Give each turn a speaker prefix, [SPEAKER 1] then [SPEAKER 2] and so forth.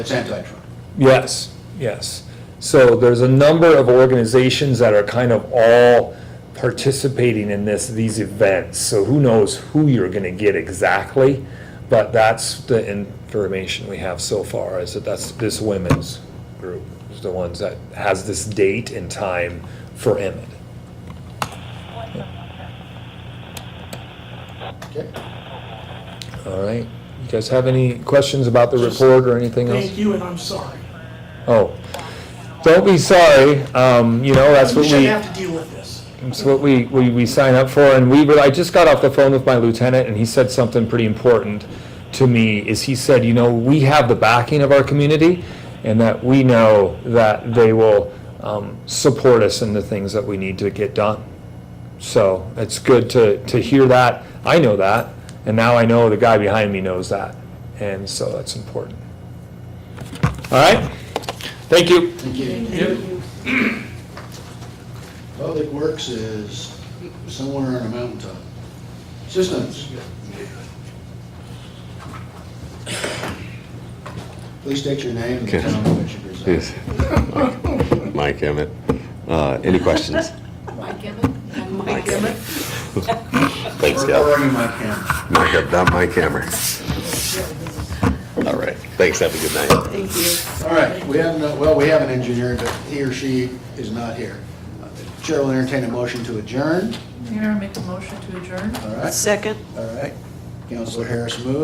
[SPEAKER 1] It's anti-Trump.
[SPEAKER 2] Yes, yes. So there's a number of organizations that are kind of all participating in this, these events. So who knows who you're going to get exactly? But that's the information we have so far is that that's this women's group is the ones that has this date and time for Emmett.
[SPEAKER 1] Okay.
[SPEAKER 2] All right. You guys have any questions about the report or anything else?
[SPEAKER 3] Thank you, and I'm sorry.
[SPEAKER 2] Oh, don't be sorry. Um, you know, that's
[SPEAKER 3] We
[SPEAKER 2] what
[SPEAKER 3] shouldn't
[SPEAKER 2] we,
[SPEAKER 3] have to deal with this.
[SPEAKER 2] that's what we, we, we sign up for. And we were, I just got off the phone with my lieutenant and he said something pretty important to me is he said, you know, we have the backing of our community and that we know that they will, um, support us in the things that we need to get done. So it's good to, to hear that. I know that. And now I know the guy behind me knows that. And so that's important. All right. Thank you.
[SPEAKER 1] Thank you. Public Works is somewhere on a mountaintop. Systems. Please state your name and the
[SPEAKER 4] Okay.
[SPEAKER 1] town in which you reside.
[SPEAKER 4] Yes. Mike Emmett. Uh, Any questions?
[SPEAKER 5] Mike Emmett? I'm Mike Emmett.
[SPEAKER 4] Thanks,
[SPEAKER 1] Or- Or
[SPEAKER 4] Deb.
[SPEAKER 1] in my camera.
[SPEAKER 4] Mike, I've done my camera. All right. Thanks. Have a good night.
[SPEAKER 5] Thank you.
[SPEAKER 1] All right, we have no, well, we have an engineer, but he or she is not here. Chair will entertain a motion to adjourn,
[SPEAKER 5] Mayor, I make a motion to adjourn.
[SPEAKER 1] all right?
[SPEAKER 6] Second.
[SPEAKER 1] All right. Counselor Harris moves.